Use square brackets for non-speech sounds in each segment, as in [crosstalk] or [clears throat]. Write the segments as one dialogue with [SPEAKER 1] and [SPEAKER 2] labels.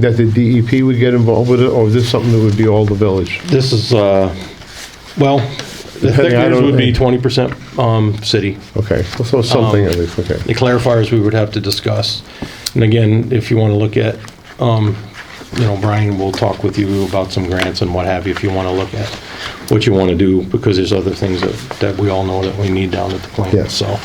[SPEAKER 1] That the DEP would get involved with it, or is this something that would be all the village?
[SPEAKER 2] This is, uh, well, the
[SPEAKER 1] Depending, I
[SPEAKER 2] hectares
[SPEAKER 1] don't
[SPEAKER 2] would be
[SPEAKER 1] know.
[SPEAKER 2] 20% um, city.
[SPEAKER 1] Okay, so something
[SPEAKER 2] Um,
[SPEAKER 1] at least, okay.
[SPEAKER 2] The clarifiers we would have to discuss. And again, if you want to look at, um, you know, Brian will talk with you about some grants and what have you, if you want to look at what you want to do, because there's other things that, that we all know that we need down at the
[SPEAKER 1] Yeah.
[SPEAKER 2] plant, so.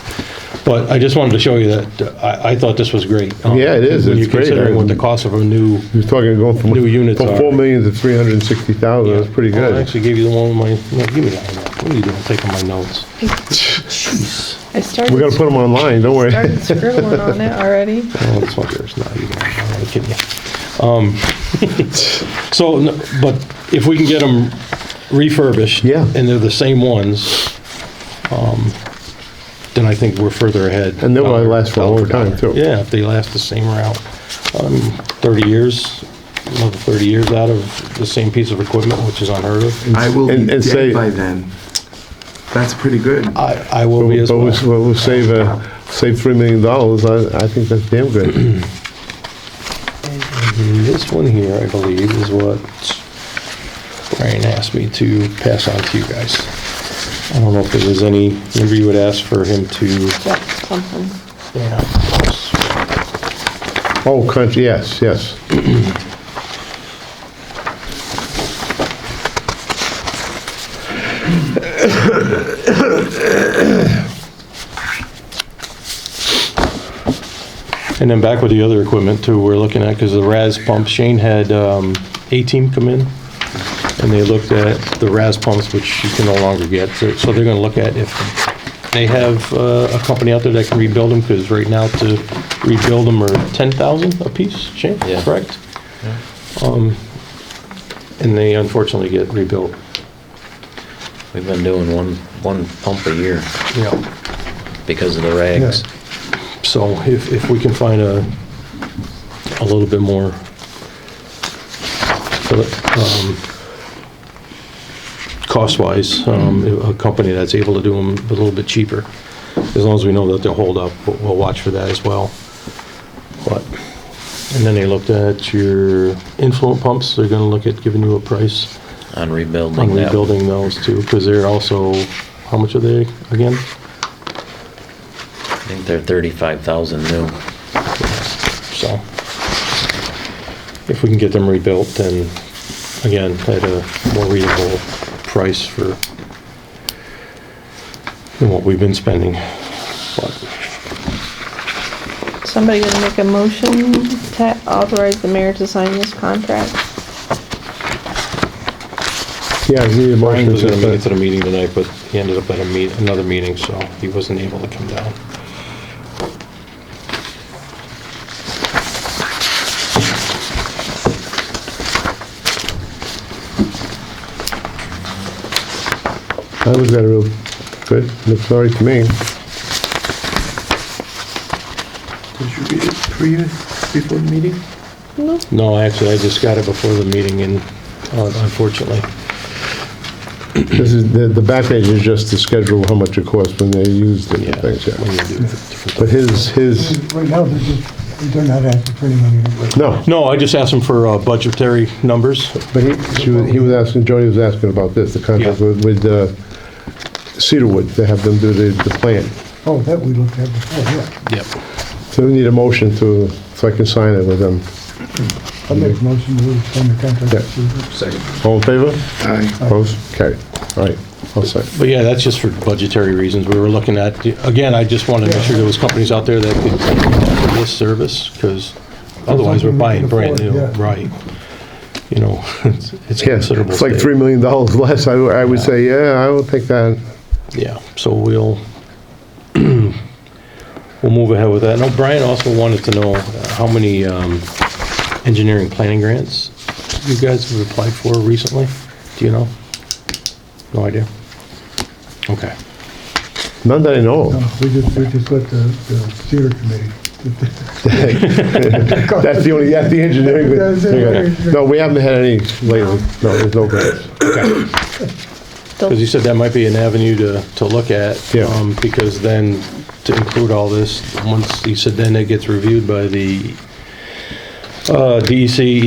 [SPEAKER 2] But I just wanted to show you that, I, I thought this was great. Um,
[SPEAKER 1] Yeah, it is.
[SPEAKER 2] when
[SPEAKER 1] It's
[SPEAKER 2] you're
[SPEAKER 1] great.
[SPEAKER 2] Considering what the cost of a new.
[SPEAKER 1] You're talking going from.
[SPEAKER 2] New units
[SPEAKER 1] From
[SPEAKER 2] are-
[SPEAKER 1] 4 million to 360,000, that's pretty
[SPEAKER 2] Oh, I
[SPEAKER 1] good.
[SPEAKER 2] actually gave you the one, with my, no, give me that one. What are you doing, taking my notes? Jeez.
[SPEAKER 3] I started,
[SPEAKER 1] We're gonna put them online, don't worry.
[SPEAKER 3] started scribbling on it already.
[SPEAKER 2] Oh, this one there's not even, I'm only kidding you. Um, [laughs] So, no, but if we can get them refurbished.
[SPEAKER 1] Yeah.
[SPEAKER 2] And they're the same ones, um, then I think we're further ahead.
[SPEAKER 1] And they'll probably last for a long time, too.
[SPEAKER 2] Yeah, if they last the same route. Um, 30 years, another 30 years out of the same piece of equipment, which is unheard of.
[SPEAKER 4] I will be
[SPEAKER 1] And- and say- Uh,
[SPEAKER 4] dead by then. That's pretty good.
[SPEAKER 2] I, I will
[SPEAKER 1] But
[SPEAKER 2] be
[SPEAKER 1] we-
[SPEAKER 2] as
[SPEAKER 1] but
[SPEAKER 2] well.
[SPEAKER 1] we- but we'll save, uh, save $3 million, I, I think that's damn
[SPEAKER 2] [clears throat]
[SPEAKER 1] good.
[SPEAKER 2] And This one here, I believe, is what Brian asked me to pass on to you guys. I don't know if there was any, remember you would ask for him to, yeah.
[SPEAKER 1] Oh, country, yes, yes.
[SPEAKER 2] And then back with the other equipment too, we're looking at, because the RAS pumps, Shane had um, A-Team come in, and they looked at the RAS pumps, which you can no longer get, so so they're gonna look at if they have uh, a company out there that can rebuild them, because right now to rebuild them are 10,000 apiece, Shane,
[SPEAKER 5] Yeah.
[SPEAKER 2] correct? Um, And they unfortunately get rebuilt.
[SPEAKER 5] We've been doing one, one pump a year
[SPEAKER 2] Yeah.
[SPEAKER 5] because of the rags.
[SPEAKER 2] So if, if we can find a, a little bit more, um, cost-wise, um, a company that's able to do them a little bit cheaper, as long as we know that they'll hold up, we'll- we'll watch for that as well. But, and then they looked at your influent pumps, they're gonna look at giving you a price
[SPEAKER 5] On
[SPEAKER 2] on
[SPEAKER 5] rebuilding that.
[SPEAKER 2] rebuilding those too, because they're also, how much are they again?
[SPEAKER 5] I think they're thirty-five thousand new.
[SPEAKER 2] So if we can get them rebuilt, then again, at a more reasonable price for than what we've been spending. But
[SPEAKER 3] Somebody gonna make a motion to authorize the mayor to sign this contract?
[SPEAKER 1] Yeah, we need a
[SPEAKER 2] Brian
[SPEAKER 1] motion
[SPEAKER 2] was gonna make it
[SPEAKER 1] to,
[SPEAKER 2] to the meeting tonight, but he ended up at a meet, another meeting, so he wasn't able to come down.
[SPEAKER 1] I was at a real, good, looks all right to me.
[SPEAKER 4] Did you read it pre, before the meeting?
[SPEAKER 2] No, actually, I just got it before the meeting and uh, unfortunately.
[SPEAKER 1] This is, the, the back page is just the schedule, of how much it costs when they use the
[SPEAKER 2] Yeah.
[SPEAKER 1] things,
[SPEAKER 2] when
[SPEAKER 1] yeah.
[SPEAKER 2] you do different-
[SPEAKER 1] But his, his,
[SPEAKER 6] Right now, they're just, they're not asking for any money.
[SPEAKER 1] no,
[SPEAKER 2] No, I just asked him for uh, budgetary numbers.
[SPEAKER 1] but he, she was- he was asking, Jody was asking about this, the contract
[SPEAKER 2] Yeah.
[SPEAKER 1] with, with uh, Cedarwood, to have them do the, the plant.
[SPEAKER 6] Oh, that we looked at before, yeah.
[SPEAKER 2] Yep.
[SPEAKER 1] So we need a motion to, so I can sign it with them.
[SPEAKER 6] I make a motion to sign the
[SPEAKER 1] Yeah.
[SPEAKER 6] contract.
[SPEAKER 4] Second.
[SPEAKER 1] All in favor?
[SPEAKER 4] Aye.
[SPEAKER 1] Opposed? Carried. All right, all set.
[SPEAKER 2] But yeah, that's just for budgetary reasons. We were looking at, again, I just wanted to make sure there was companies out there that could offer this service, because otherwise we're buying brand new,
[SPEAKER 6] Yeah.
[SPEAKER 2] right? You know, [laughs] it's it's
[SPEAKER 1] Yeah,
[SPEAKER 2] considerable.
[SPEAKER 1] it's like
[SPEAKER 2] state.
[SPEAKER 1] $3 million less, I, w- I would say, yeah, I would take that.
[SPEAKER 2] Yeah, so we'll, [clears throat] we'll move ahead with that. Now, Brian also wanted to know uh, how many um, engineering planning grants you guys have applied for recently? Do you know? No idea? Okay.
[SPEAKER 1] None that I know of.
[SPEAKER 6] No, we just, we just let the, the theater committee.
[SPEAKER 1] That's the only, that's the engineering.
[SPEAKER 6] That's it.
[SPEAKER 1] Okay. No, we haven't had any lately. No, there's no grants.
[SPEAKER 2] Because you said that might be an avenue to, to look at.
[SPEAKER 1] Yeah.
[SPEAKER 2] um, Because then, to include all this, once, you said then it gets reviewed by the uh, DEC,